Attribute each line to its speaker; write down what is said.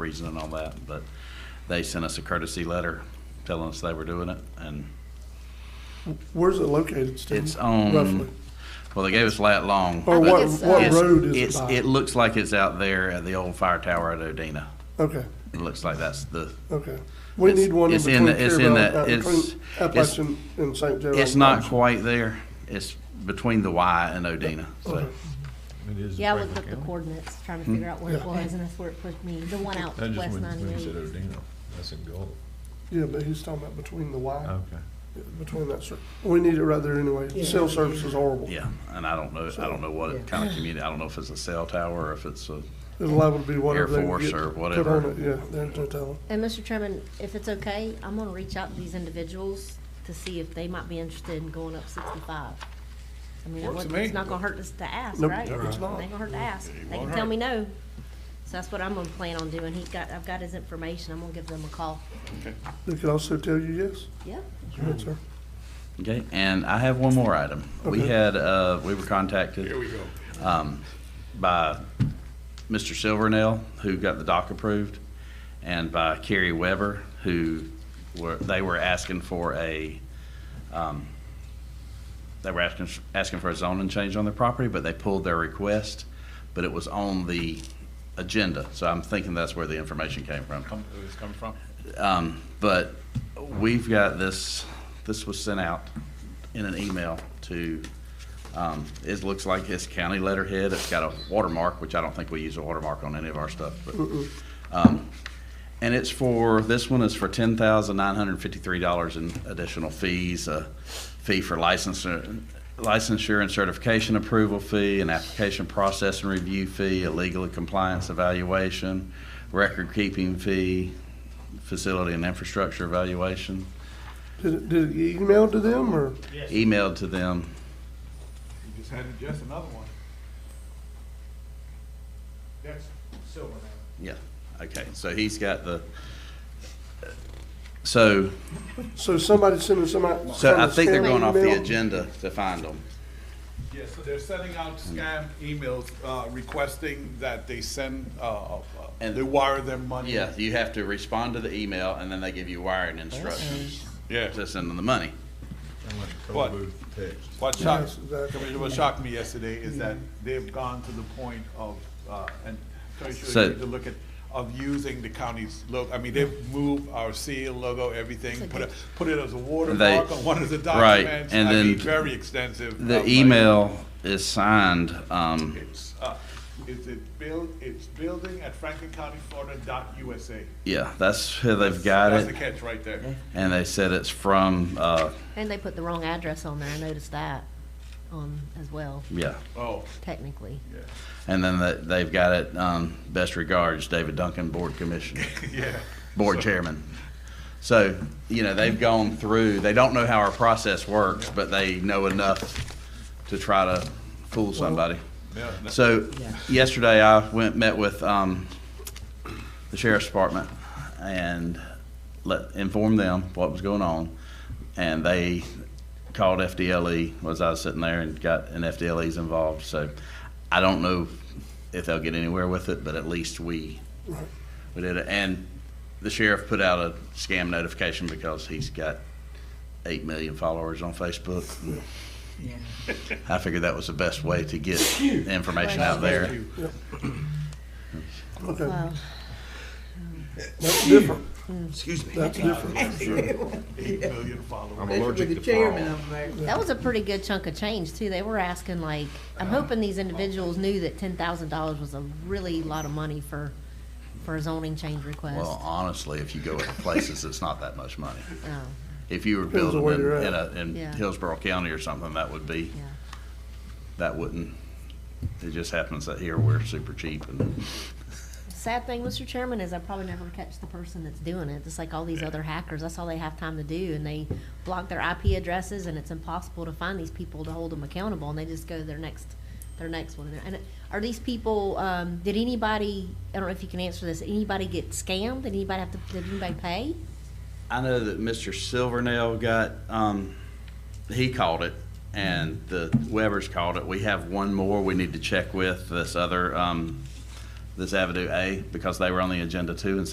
Speaker 1: reason and all that, but they sent us a courtesy letter telling us they were doing it, and
Speaker 2: Where's it located, Steve?
Speaker 1: it's um, on,
Speaker 2: Mm-hmm. Roughly.
Speaker 1: well, they gave us lat long.
Speaker 2: Or
Speaker 1: but
Speaker 2: what,
Speaker 3: it's, uh,
Speaker 2: what
Speaker 1: it's-
Speaker 2: road is it
Speaker 1: it's- It
Speaker 2: by?
Speaker 1: looks like it's out there at the old fire tower at Odina.
Speaker 2: Okay,
Speaker 1: It looks like that's the,
Speaker 2: okay. We
Speaker 1: It's-
Speaker 2: need one in
Speaker 1: it's in
Speaker 2: between
Speaker 1: the- it's in
Speaker 2: Clearbrook,
Speaker 1: the-
Speaker 2: uh,
Speaker 1: it's-
Speaker 2: between Appalachian and St. Joe.
Speaker 1: it's not quite there. It's between the Y and Odina, so.
Speaker 2: Okay.
Speaker 4: It is
Speaker 3: Yeah, I
Speaker 4: Franklin
Speaker 3: looked up the
Speaker 4: County.
Speaker 3: coordinates, trying to figure out where it was, and that's where it put me, the one out
Speaker 4: That just
Speaker 3: west
Speaker 4: went, when you said
Speaker 3: ninety-eight.
Speaker 4: Odino, that's in Gulf.
Speaker 2: Yeah, but he's talking about between the Y,
Speaker 4: Okay.
Speaker 2: between that, cir- we need it right there anyway. Cell service is horrible.
Speaker 1: Yeah, and I don't know, I don't know what kind of community, I don't know if it's a cell tower or if it's a,
Speaker 2: It's liable to be whatever
Speaker 1: Air
Speaker 2: they
Speaker 1: Force
Speaker 2: get
Speaker 1: or
Speaker 2: put
Speaker 1: whatever.
Speaker 2: on it. Yeah, there's no telling.
Speaker 3: And Mr. Chairman, if it's okay, I'm gonna reach out to these individuals to see if they might be interested in going up sixty-five. I mean, it
Speaker 5: Works
Speaker 3: wouldn't-
Speaker 5: to me.
Speaker 3: it's not gonna hurt us to ask,
Speaker 2: Nope,
Speaker 3: right? It
Speaker 2: it's
Speaker 3: ain't
Speaker 2: not.
Speaker 3: gonna hurt to ask. They can
Speaker 5: won't
Speaker 3: tell
Speaker 5: hurt.
Speaker 3: me no. So that's what I'm gonna plan on doing. He got, I've got his information. I'm gonna give them a call.
Speaker 2: They could also tell you yes.
Speaker 3: Yep.
Speaker 2: Yes, sir.
Speaker 1: okay? And I have one more item. We
Speaker 2: Okay.
Speaker 1: had, uh, we were contacted.
Speaker 5: Here we go.
Speaker 1: um, by Mr. Silvernail, who got the dock approved, and by Carrie Weber, who were, they were asking for a, um, they were asking, asking for a zoning change on their property, but they pulled their request, but it was on the agenda, so I'm thinking that's where the information came from.
Speaker 5: Come, where this coming from?
Speaker 1: Um, but we've got this, this was sent out in an email to, um, it looks like it's county letterhead. It's got a watermark, which I don't think we use a watermark on any of our stuff, but, um, and it's for, this one is for ten thousand nine hundred and fifty-three dollars in additional fees, a fee for licensure, licensure and certification approval fee, an application process and review fee, a legal compliance evaluation, record-keeping fee, facility and infrastructure evaluation,
Speaker 2: Did it, did it get emailed to them or?
Speaker 1: emailed to them.
Speaker 6: You just had just another one. That's silver now.
Speaker 1: Yeah, okay, so he's got the, so,
Speaker 2: So somebody sending somebody.
Speaker 1: so I
Speaker 2: somebody
Speaker 1: think they're
Speaker 2: scanning
Speaker 1: going off the
Speaker 2: email?
Speaker 1: agenda to find them.
Speaker 6: Yes, so they're sending out scam emails uh, requesting that they send, uh, uh,
Speaker 1: And-
Speaker 6: they wire them money.
Speaker 1: Yeah, you have to respond to the email, and then they give you wiring instructions
Speaker 6: Yeah,
Speaker 1: to send them the money.
Speaker 4: I went to
Speaker 6: What?
Speaker 4: Cold Booth Text.
Speaker 6: what
Speaker 2: Yes,
Speaker 6: shocked,
Speaker 2: exactly.
Speaker 6: Commissioner, what shocked me yesterday is that they've gone to the point of, uh, and
Speaker 1: So-
Speaker 6: Commissioner, you need to look at, of using the county's logo, I mean, they've moved our seal, logo, everything, put it, put it as a watermark on one of the
Speaker 1: right,
Speaker 6: documents.
Speaker 1: and
Speaker 6: I mean,
Speaker 1: then
Speaker 6: Very extensive. I
Speaker 1: The
Speaker 6: was like,
Speaker 1: email is signed, um,
Speaker 6: It's, uh, is it build, it's building at Franklin County, Florida dot USA.
Speaker 1: yeah, that's who they've got
Speaker 6: That's the
Speaker 1: it,
Speaker 6: catch right there.
Speaker 1: and they said it's from, uh,
Speaker 3: And they put the wrong address on there. I noticed that on, as well,
Speaker 1: yeah.
Speaker 6: Oh,
Speaker 3: technically.
Speaker 6: yeah,
Speaker 1: And then they- they've got it, um, best regards, David Duncan, Board Commissioner.
Speaker 6: yeah.
Speaker 1: board chairman. So, you know, they've gone through, they don't know how our process works, but they know enough to try to fool somebody.
Speaker 6: Yeah, no.
Speaker 1: So yesterday I went, met with, um, the sheriff's department and let, informed them what was going on. And they called FDLE, E, was I was sitting there and got, and FDLE's involved, so I don't know if they'll get anywhere with it, but at least we, we did it. And the sheriff put out a scam notification because he's got eight million followers on Facebook. I figured that was the best way to get information out there.
Speaker 2: Okay,
Speaker 3: Well,
Speaker 2: that's different.
Speaker 7: Excuse me.
Speaker 2: That's different.
Speaker 6: Eight million followers.
Speaker 4: I'm
Speaker 7: With
Speaker 4: allergic
Speaker 7: the
Speaker 4: to
Speaker 7: chairman
Speaker 4: flour.
Speaker 7: over there.
Speaker 3: That was a pretty good chunk of change too. They were asking like, I'm hoping these individuals knew that ten thousand dollars was a really lot of money for, for a zoning change request.
Speaker 1: Well, honestly, if you go other places, it's not that much money.
Speaker 3: Oh,
Speaker 1: If you were
Speaker 2: Depends on
Speaker 1: building
Speaker 2: where
Speaker 1: in,
Speaker 2: you're
Speaker 1: in a,
Speaker 2: at.
Speaker 1: in
Speaker 3: Yeah.
Speaker 1: Hillsborough County or something, that would be,
Speaker 3: yeah.
Speaker 1: that wouldn't. It just happens that here we're super cheap and,
Speaker 3: Sad thing, Mr. Chairman, is I probably never catch the person that's doing it. Just like all these other hackers, that's all they have time to do, and they block their IP addresses, and it's impossible to find these people to hold them accountable, and they just go to their next, their next one. And it- are these people? Um, did anybody? I don't know if you can answer this. Anybody get scammed? Did anybody have to? Did anybody pay?
Speaker 1: I know that Mr. Silvernail got, um, he called it and the Webbers called it. We have one more we need to check with this other, um, this Avenue A because they were on the agenda too and